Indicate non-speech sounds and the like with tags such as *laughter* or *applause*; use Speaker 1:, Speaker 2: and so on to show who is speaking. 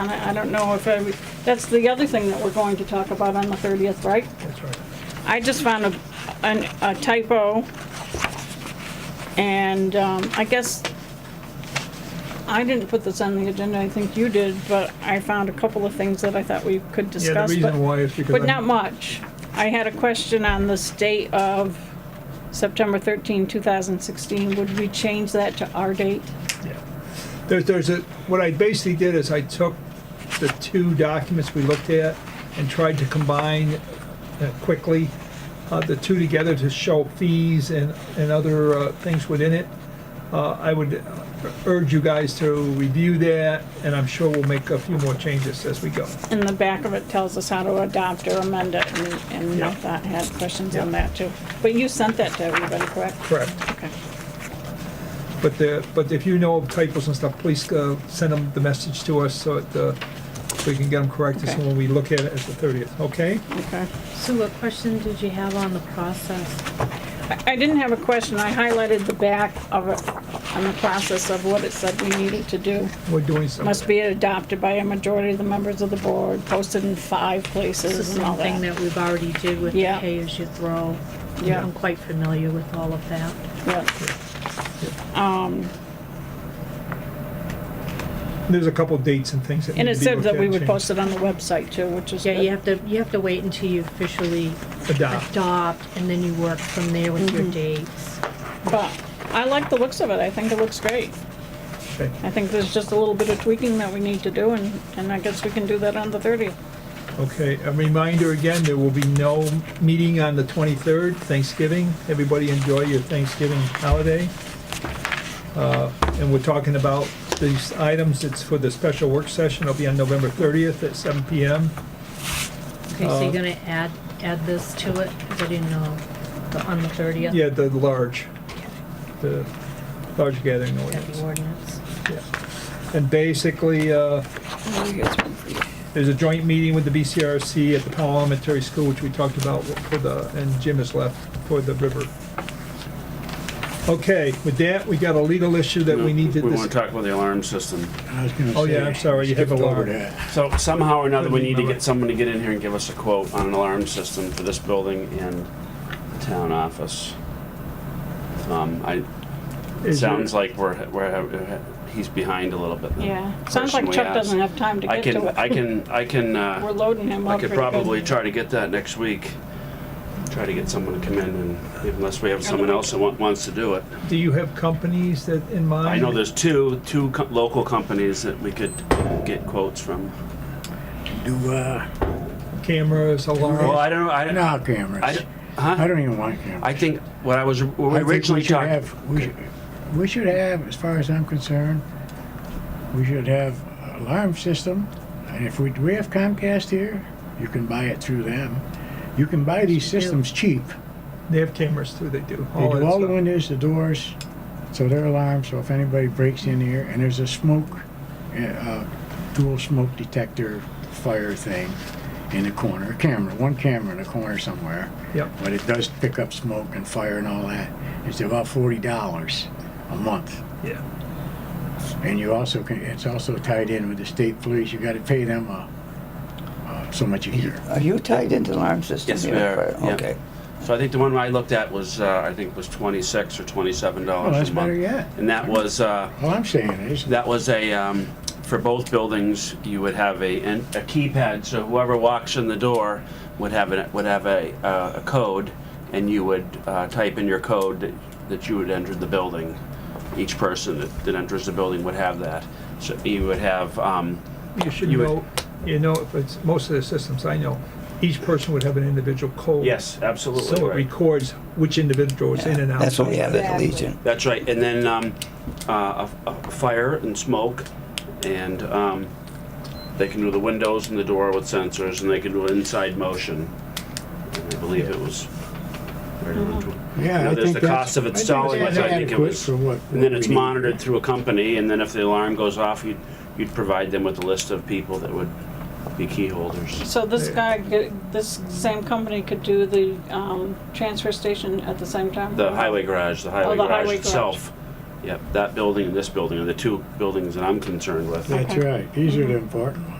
Speaker 1: And I, I don't know if I, that's the other thing that we're going to talk about on the 30th, right?
Speaker 2: That's right.
Speaker 1: I just found a, an- a typo. And, um, I guess I didn't put this on the agenda, I think you did, but I found a couple of things that I thought we could discuss.
Speaker 2: Yeah, the
Speaker 1: but-
Speaker 2: reason why is
Speaker 1: But
Speaker 2: because
Speaker 1: not
Speaker 2: I'm,
Speaker 1: much. I had a question on this date of September 13, 2016. Would we change that to our date?
Speaker 2: yeah. There's, there's a, what I basically did is I took the two documents we looked at and tried to combine uh, quickly uh, the two together to show fees and, and other uh, things within it. Uh, I would urge you guys to review that, and I'm sure we'll make a few more changes as we go.
Speaker 1: In the back of it tells us how to adopt or amend it, and- and I
Speaker 2: Yeah.
Speaker 1: thought I had questions on
Speaker 2: Yeah.
Speaker 1: that too. But you sent that to everybody, correct?
Speaker 2: Correct.
Speaker 1: Okay.
Speaker 2: But the, but if you know of typos and stuff, please uh, send them the message to us so that uh, we can get them corrected, so
Speaker 1: Okay.
Speaker 2: when we look at it as the 30th, okay?
Speaker 1: Okay.
Speaker 3: So what question did you have on the process?
Speaker 1: I- I didn't have a question. I highlighted the back of it on the process of what it said we needed to do.
Speaker 2: We're doing something.
Speaker 1: Must be adopted by a majority of the members of the board, posted in five
Speaker 3: This is
Speaker 1: places and all
Speaker 3: something
Speaker 1: that.
Speaker 3: that we've already did with the
Speaker 1: Yeah.
Speaker 3: pay-as-you-throw.
Speaker 1: Yeah.
Speaker 3: I'm quite familiar with all of that.
Speaker 1: Yeah.
Speaker 2: There's a couple dates and things that need
Speaker 1: And
Speaker 2: to
Speaker 1: it
Speaker 2: be
Speaker 1: said
Speaker 2: looked at
Speaker 1: that we
Speaker 2: and
Speaker 1: would
Speaker 2: changed.
Speaker 1: post it on the website too, which is
Speaker 3: Yeah, you
Speaker 1: good.
Speaker 3: have to, you have to wait until you officially
Speaker 2: Adopt.
Speaker 3: adopt, and then you work from there with
Speaker 1: Mm-hmm.
Speaker 3: your dates.
Speaker 1: But I like the looks of it. I think it looks great.
Speaker 2: Okay.
Speaker 1: I think there's just a little bit of tweaking that we need to do and, and I guess we can do that on the 30th.
Speaker 2: Okay, a reminder again, there will be no meeting on the 23rd, Thanksgiving. Everybody enjoy your Thanksgiving holiday. Uh, And we're talking about these items, it's for the special work session, it'll be on November 30th at 7 PM.
Speaker 3: Okay, so
Speaker 2: Uh,
Speaker 3: you're gonna add, add this to it? 'Cause I didn't know, the- on the 30th?
Speaker 2: Yeah, the large, the large gathering
Speaker 3: That'd be
Speaker 2: audience.
Speaker 3: ordinance.
Speaker 2: Yeah. And basically, uh, There's a joint meeting with the BCRC at the Powell Elementary School, which we talked about for the, and Jim has left, for the river. Okay, with that, we got a legal issue that we need to,
Speaker 4: We want
Speaker 2: dis-
Speaker 4: to talk about the alarm system.
Speaker 5: I was gonna
Speaker 2: Oh, yeah,
Speaker 5: say,
Speaker 2: I'm sorry, you have
Speaker 5: skipped
Speaker 2: a
Speaker 5: over
Speaker 2: lot.
Speaker 5: that.
Speaker 4: So somehow or another, we need to
Speaker 2: Remember.
Speaker 4: get someone to get in here and give us a quote on an alarm system for this building and the town office. Um, I, it
Speaker 2: Is there-
Speaker 4: sounds like we're, we're, he's behind a little bit. the
Speaker 1: Yeah. Sounds
Speaker 4: person
Speaker 1: like
Speaker 4: we
Speaker 1: Chuck
Speaker 4: asked.
Speaker 1: doesn't have time to
Speaker 4: I
Speaker 1: get
Speaker 4: can,
Speaker 1: to
Speaker 4: I
Speaker 1: it.
Speaker 4: can, I can, uh.
Speaker 1: *laughs* We're loading him
Speaker 4: I
Speaker 1: up
Speaker 4: could
Speaker 1: pretty good.
Speaker 4: probably try to get that next week. Try to get someone to come in and, unless we have someone else that wa- wants to do it.
Speaker 2: do you have companies that in mind?
Speaker 4: I know there's two, two co- local companies that we could get quotes from.
Speaker 5: Do, uh,
Speaker 2: Cameras,
Speaker 4: Well,
Speaker 2: alarms,
Speaker 4: I don't, I,
Speaker 5: no
Speaker 4: I,
Speaker 5: cameras.
Speaker 4: don't-
Speaker 5: I
Speaker 4: huh?
Speaker 5: don't even want cameras.
Speaker 4: I think what I was what we
Speaker 5: I think
Speaker 4: originally
Speaker 5: we should
Speaker 4: talking.
Speaker 5: have, we should, we should have, as far as I'm concerned, we should have alarm system. And if we, do we have Comcast here? You can buy it through them. You can buy these
Speaker 3: do.
Speaker 5: systems cheap.
Speaker 2: they have cameras too, they do.
Speaker 5: They
Speaker 2: that
Speaker 5: do all the
Speaker 2: stuff.
Speaker 5: windows, the doors, so they're alarmed, so if anybody breaks in here, and there's a smoke, uh, uh, dual smoke detector fire thing in the corner, camera, one camera in the corner somewhere,
Speaker 2: Yep,
Speaker 5: but it does pick up smoke and fire and all that. It's about forty dollars a month.
Speaker 2: yeah.
Speaker 5: And you also can, it's also tied in with the state police, you gotta pay them, uh, uh, so much a year.
Speaker 6: Are you tied into the alarm system?
Speaker 4: Yes,
Speaker 6: here?
Speaker 4: we are, yeah.
Speaker 6: Okay.
Speaker 4: So I think the one I looked at was uh, I think was twenty six or twenty seven
Speaker 5: Well,
Speaker 4: dollars
Speaker 5: that's
Speaker 4: a month,
Speaker 5: better yet.
Speaker 4: and that was uh,
Speaker 5: All I'm saying is,
Speaker 4: that was a um, for both buildings you would have a an, a keypad, so whoever walks in the door would have a would have a, uh, a code, and you would uh, type in your code that, that you had entered the building. Each person that, that enters the building would have that. So you would have. Um,
Speaker 2: You should
Speaker 4: You would-
Speaker 2: know, you know, if it's, most of the systems I know, each person would have an individual code.
Speaker 4: Yes, absolutely.
Speaker 2: So it
Speaker 4: right.
Speaker 2: records which individual is in and out.
Speaker 6: That's what we have at the Legion.
Speaker 4: That's right. And then um, uh, a, a fire and smoke, and um, they can do the windows and the door with sensors, and they can do inside motion. I believe it was. You
Speaker 5: yeah,
Speaker 4: know,
Speaker 5: I
Speaker 4: there's
Speaker 5: think
Speaker 4: the
Speaker 5: that's.
Speaker 4: cost of
Speaker 5: I think
Speaker 4: installing
Speaker 5: that's
Speaker 4: it. I think it
Speaker 5: adequate
Speaker 4: was,
Speaker 5: for what-
Speaker 4: and then
Speaker 5: what
Speaker 4: it's
Speaker 5: we need.
Speaker 4: monitored through a company, and then if the alarm goes off, you'd, you'd provide them with a list of people that would be key holders.
Speaker 1: So this guy, get- this same company could do the um, transfer station at the same time?
Speaker 4: Oh, The highway garage, the highway
Speaker 1: the
Speaker 4: garage
Speaker 1: highway garage.
Speaker 4: itself Yep, that building and this building are the two buildings that I'm concerned with.
Speaker 5: That's right, these are the important ones.